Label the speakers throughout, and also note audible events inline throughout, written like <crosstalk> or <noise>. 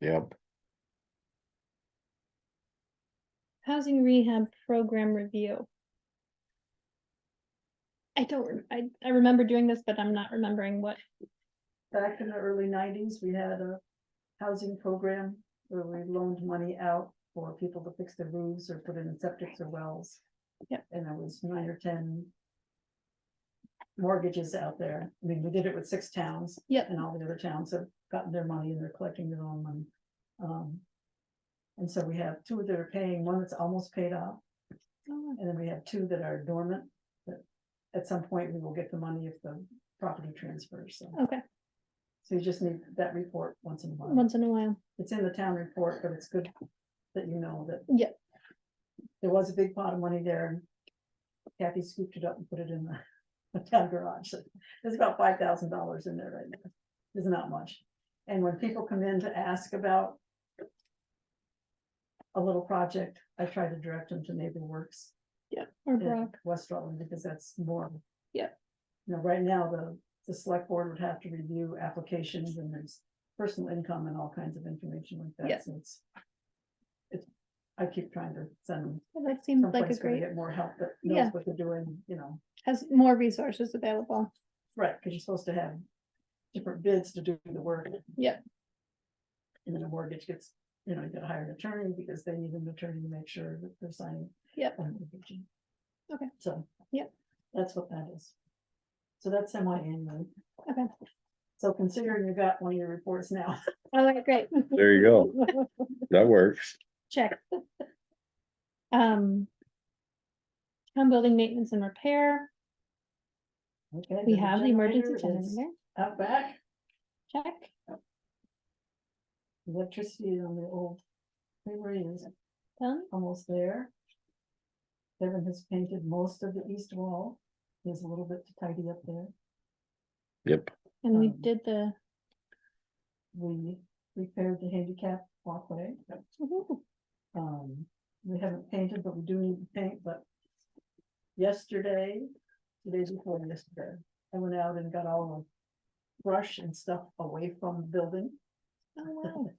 Speaker 1: Yep,
Speaker 2: Housing rehab program review. I don't, rem- I, I remember doing this, but I'm not remembering what,
Speaker 3: Back in the early nineties, we had a housing program where we loaned money out for people to fix their roofs or put in septics or wells.
Speaker 2: Yep.
Speaker 3: And there was nine or ten mortgages out there. I mean, we did it with six towns.
Speaker 2: Yep.
Speaker 3: And all the other towns have gotten their money and they're collecting their own money. Um, and so we have two that are paying, one that's almost paid off,
Speaker 2: oh,
Speaker 3: and then we have two that are dormant. But at some point, we will get the money if the property transfers, so.
Speaker 2: okay,
Speaker 3: So you just need that report once in a while.
Speaker 2: once in a while,
Speaker 3: It's in the town report, but it's good that you know that.
Speaker 2: Yeah.
Speaker 3: There was a big pot of money there. and Kathy scooped it up and put it in the- <laughs> the town garage. So There's about five thousand dollars in there right now. It's not much. And when people come in to ask about a little project, I try to direct them to Neighbor Works
Speaker 2: or
Speaker 3: in
Speaker 2: Brock,
Speaker 3: West Rutland, because that's more.
Speaker 2: Yeah.
Speaker 3: You know, right now, the, the select board would have to review applications and there's personal income and all kinds of information like
Speaker 2: Yeah.
Speaker 3: that, so it's. It's, I keep trying to send them
Speaker 2: that seems like a
Speaker 3: someplace where they
Speaker 2: great,
Speaker 3: get more help that
Speaker 2: Yeah.
Speaker 3: knows what they're doing, you know,
Speaker 2: has more resources available.
Speaker 3: right, because you're supposed to have. Different bids to do the work.
Speaker 2: Yeah.
Speaker 3: And then a mortgage gets, you know, you gotta hire an attorney because they need an attorney to make sure that they're signing.
Speaker 2: Yep.
Speaker 3: on the region.
Speaker 2: Okay.
Speaker 3: So.
Speaker 2: Yep.
Speaker 3: That's what that is. So that's semi-annual.
Speaker 2: Okay.
Speaker 3: So considering you got one of your reports now. <laughs>
Speaker 2: All right, great. <laughs>
Speaker 1: there you go. That works.
Speaker 2: Check. Um. Town building maintenance and repair,
Speaker 3: Okay,
Speaker 2: we
Speaker 3: the
Speaker 2: have the emergency
Speaker 3: generator is
Speaker 2: generator,
Speaker 3: Out back,
Speaker 2: check,
Speaker 3: electricity on the old freeway is
Speaker 2: done,
Speaker 3: almost there. Kevin has painted most of the east wall. There's a little bit to tidy up there.
Speaker 1: Yep,
Speaker 2: and we
Speaker 3: Um,
Speaker 2: did the,
Speaker 3: We repaired the handicap walkway.
Speaker 2: woohoo, Oh,
Speaker 3: Um, we haven't painted, but we do need to paint, but yesterday, the day before yesterday, I went out and got all the brush and stuff away from the building. <laughs>
Speaker 2: oh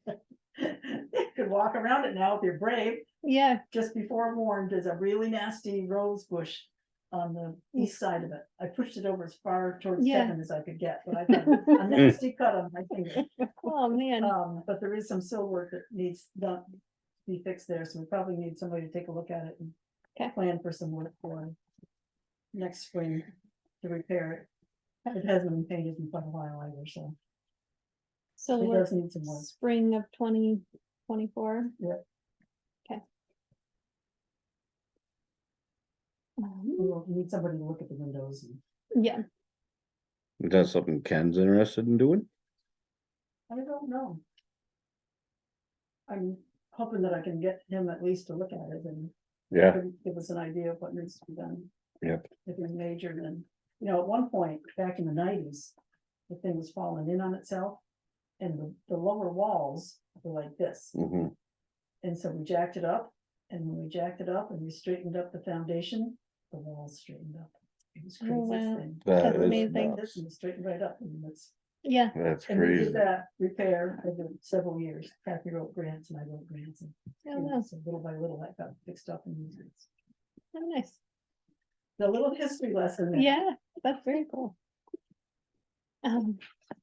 Speaker 2: wow,
Speaker 3: You Could walk around it now if you're brave.
Speaker 2: yeah, <laughs>
Speaker 3: Just before I'm warned, there's a really nasty rose bush on the east side of it. I pushed it over as far towards
Speaker 2: Yeah.
Speaker 3: Kevin as I could get, but I got
Speaker 2: <laughs>
Speaker 3: a nasty cut on my finger.
Speaker 2: oh man,
Speaker 3: Um, but there is some sill work that needs done, to be fixed there, so we probably need somebody to take a look at it
Speaker 2: Okay.
Speaker 3: and plan for some work for next spring to repair it.
Speaker 2: Okay.
Speaker 3: It hasn't been painted in quite a while either, so
Speaker 2: so
Speaker 3: it
Speaker 2: we're
Speaker 3: does need some work.
Speaker 2: spring of twenty twenty-four.
Speaker 3: Yep.
Speaker 2: Okay.
Speaker 3: We will need somebody to look at the windows and,
Speaker 2: Um, Yeah,
Speaker 1: Is that something Ken's interested in doing?
Speaker 3: I don't know. I'm hoping that I can get him at least to look at it and
Speaker 1: Yeah,
Speaker 3: give- give us an idea of what needs to be done.
Speaker 1: Yep.
Speaker 3: If it's major, then, you know, at one point, back in the nineties, the thing was falling in on itself. And the, the lower walls were like this,
Speaker 1: hmm
Speaker 3: and so we jacked it up, and when we jacked it up and we straightened up the foundation, the walls straightened up. It was
Speaker 2: Oh,
Speaker 3: crazy
Speaker 2: wow.
Speaker 3: thing.
Speaker 1: That
Speaker 2: That's
Speaker 1: is
Speaker 2: amazing.
Speaker 3: Like this, and it Straightened right up, and that's,
Speaker 2: yeah,
Speaker 1: that's
Speaker 3: and we uh,
Speaker 1: crazy.
Speaker 3: did that repair over several years, Kathy wrote grants and I wrote grants, and,
Speaker 2: oh
Speaker 3: you know,
Speaker 2: wow,
Speaker 3: so little by little, that got fixed up and used.
Speaker 2: how nice,
Speaker 3: The little history lesson. there.
Speaker 2: yeah, that's very cool. Um, <laughs>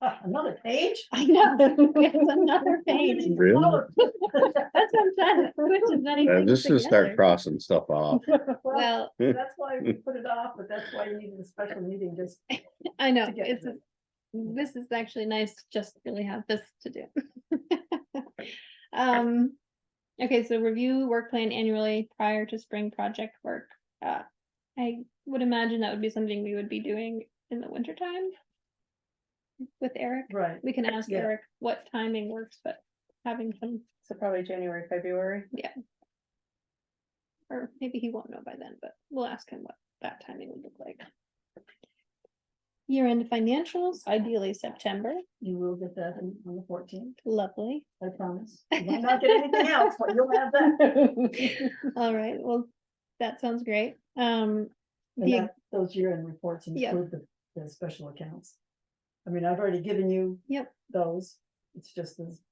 Speaker 3: Ah, <laughs> Another page?
Speaker 2: I know, it's
Speaker 3: <laughs>
Speaker 2: another page.
Speaker 1: Really? <laughs>
Speaker 3: Well,
Speaker 2: That's what I'm trying to, which is not
Speaker 1: Yeah,
Speaker 2: even
Speaker 1: Just to Uh, start
Speaker 2: together.
Speaker 1: crossing stuff off.
Speaker 2: Well,
Speaker 3: That's why we put it off, but that's why you needed a special meeting just.
Speaker 2: I know,
Speaker 3: to get
Speaker 2: it's,
Speaker 3: to
Speaker 2: a- this is actually nice, to just really have this to do. Um, okay, so review work plan annually prior to spring project work. Uh, I would imagine that would be something we would be doing in the winter time. With Eric,
Speaker 3: Right,
Speaker 2: we can ask
Speaker 3: Yeah.
Speaker 2: Eric what timing works, but having some,
Speaker 4: So probably January, February.
Speaker 2: or maybe he won't know by then, but we'll ask him what that timing would look like. Year-end financials, ideally September,
Speaker 3: you will get that in- on the fourteenth,
Speaker 4: <laughs>
Speaker 2: lovely.
Speaker 3: I promise. You might not get
Speaker 2: <laughs>
Speaker 3: anything else, but you'll have that.
Speaker 2: All right, well, that sounds great. Um, the,
Speaker 3: And that- Those year-end reports
Speaker 2: Yeah.
Speaker 3: include the, the special accounts. I mean, I've already given you.
Speaker 2: Yep.
Speaker 3: Those, it's just the